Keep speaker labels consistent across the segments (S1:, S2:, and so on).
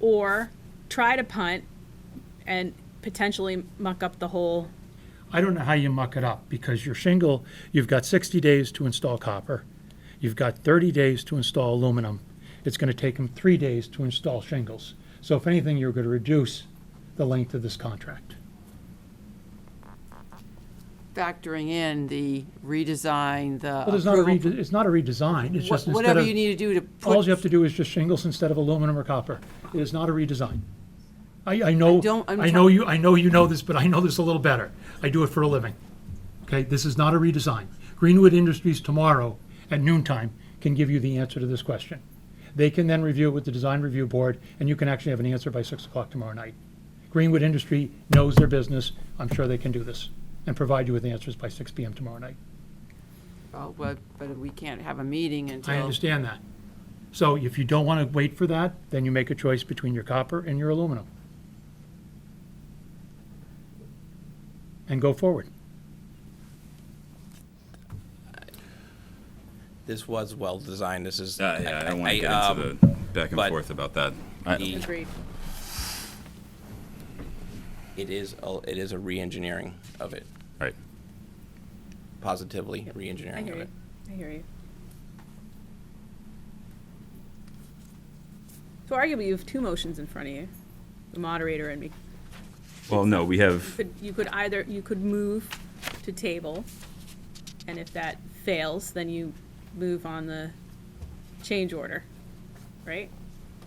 S1: or try to punt and potentially muck up the whole.
S2: I don't know how you muck it up because your shingle, you've got 60 days to install copper. You've got 30 days to install aluminum. It's going to take them three days to install shingles. So if anything, you're going to reduce the length of this contract.
S3: factoring in the redesign, the
S2: Well, there's not a
S3: approval-
S2: rede- it's not a redesign, it's
S3: wha-
S2: just instead
S3: Whatever
S2: of,
S3: you need to do to put.
S2: all you have to do is just shingles instead of aluminum or copper. It is not a redesign. I, I know,
S3: don't- I'm
S2: I know you, I know you know this, but I know this a little better. I do it for a living. Okay, this is not a redesign. Greenwood Industries tomorrow at noontime can give you the answer to this question. They can then review it with the design review board, and you can actually have an answer by six o'clock tomorrow night. Greenwood Industry knows their business. I'm sure they can do this and provide you with answers by six PM tomorrow night.
S3: Well, Oh, But, but we can't have a meeting until.
S2: I understand that. So if you don't want to wait for that, then you make a choice between your copper and your aluminum. And go forward.
S4: This was well designed. This is.
S5: Uh, Yeah, yeah, I don't want to get
S4: um,
S5: into the back and
S4: but
S5: forth about that. I-
S4: the-
S1: Agreed.
S4: It is, a- it is a re-engineering of it,
S5: Right.
S4: positively
S1: I
S4: re-engineering
S1: hear
S4: of
S1: you.
S4: it.
S1: I hear you. So arguably, you have two motions in front of you, the moderator and me.
S5: Well, no, we have,
S1: Could, you could either, you could move to table, and if that fails, then you move on the change order, right?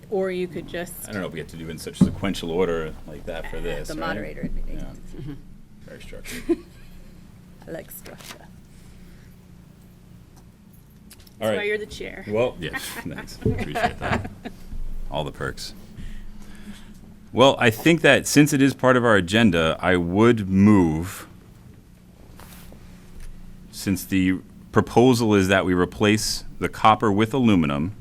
S1: Or you could just,
S5: I don't know if we have to do it in such sequential order like that for this,
S6: The
S5: right?
S6: moderator would be,
S5: Yeah. Very structured.
S6: I like structure.
S5: All
S1: that's why you're
S5: right.
S1: the chair.
S5: Well, yes, thanks. Appreciate that. All the perks. Well, I think that since it is part of our agenda, I would move, since the proposal is that we replace the copper with aluminum.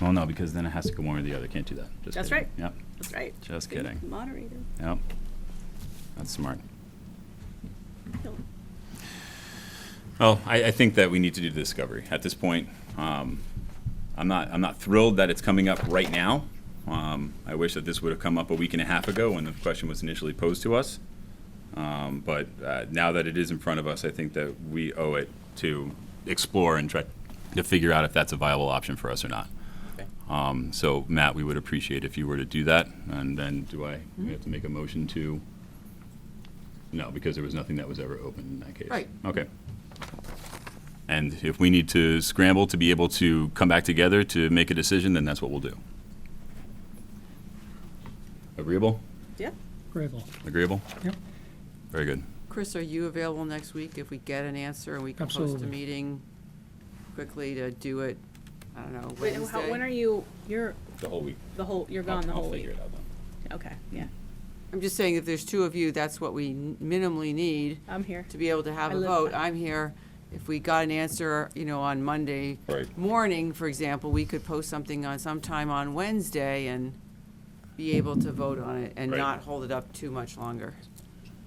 S5: Well, no, because then it has to go one or the other. Can't do that. Just
S1: That's
S5: kidding.
S1: right.
S5: Yep.
S1: That's right.
S5: Just
S1: Be
S5: kidding.
S1: Moderator.
S5: Yep. That's smart. Well, I, I think that we need to do the discovery at this point. Um, I'm not, I'm not thrilled that it's coming up right now. Um, I wish that this would have come up a week and a half ago when the question was initially posed to us. Um, but uh, now that it is in front of us, I think that we owe it to explore and try to figure out if that's a viable option for us or not.
S4: Okay.
S5: Um, so, Matt, we would appreciate if you were to do that. And then, do I we have to make a motion to? No, because there was nothing that was ever open in that case.
S3: Right.
S5: Okay. And if we need to scramble to be able to come back together to make a decision, then that's what we'll do. Agreeable?
S1: Yeah,
S2: Gravel.
S5: Agreeable?
S2: Yep.
S5: Very good.
S3: Chris, are you available next week if we get an answer and we can post a
S2: Absolutely.
S3: meeting quickly to do it, I don't know,
S1: wait, how, when are
S3: Wednesday?
S1: you, you're,
S5: The whole week.
S1: the whole, you're gone the whole week?
S5: out then.
S1: Okay, yeah,
S3: I'm just saying, if there's two of you, that's what we minimally need
S1: I'm here.
S3: to be able to have
S1: I
S3: a
S1: live
S3: vote.
S1: by-
S3: I'm here. If we got an answer, you know, on Monday
S5: Right.
S3: morning, for example, we could post something on sometime on Wednesday and be able to vote on it and
S5: Right.
S3: not hold it up too much longer.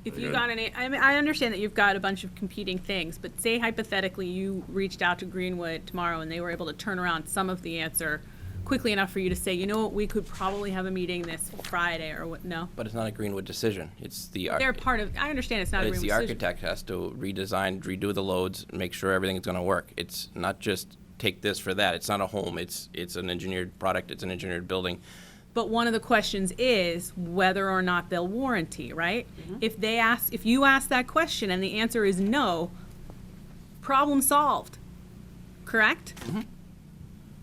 S1: If you got any, I mean, I understand that you've got a bunch of competing things, but say hypothetically you reached out to Greenwood tomorrow and they were able to turn around some of the answer quickly enough for you to say, you know what, we could probably have a meeting this Friday or what, no?
S4: But it's not a Greenwood decision. It's the. arch-
S1: They're part of, I understand it's not a
S4: Uh, But it's
S1: Greenwood
S4: the
S1: decision.
S4: architect has to redesign, redo the loads, make sure everything's gonna work. It's not just take this for that. It's not a home. It's, it's an engineered product. It's an engineered building.
S1: But one of the questions is whether or not they'll warranty, right? If they ask, if you ask that question and the answer is no, problem solved, correct?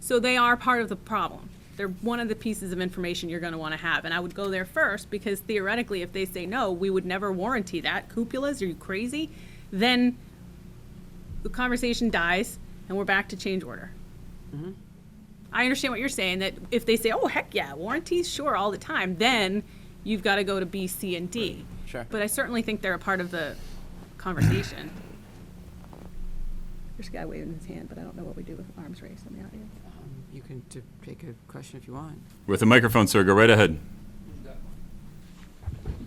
S1: So they are part of the problem. They're one of the pieces of information you're going to want to have. And I would go there first because theoretically, if they say no, we would never warranty that. Cupulas, are you crazy? Then the conversation dies and we're back to change order. I understand what you're saying that if they say, "Oh heck yeah, warranties sure all the time," then you've got to go to B, C, and D.
S4: Sure.
S1: But I certainly think they're a part of the conversation. There's a guy waving his hand, but I don't know what we do with arms raised in the audience.
S3: You can t- take a question if you want.
S5: With the microphone, sir, go right ahead.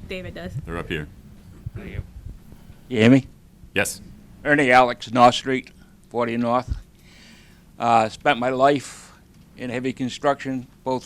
S1: David does.
S5: They're up here.
S7: You hear me?
S5: Yes.
S7: Ernie Alex, North Street, 40 North. Uh, Spent my life in heavy construction, both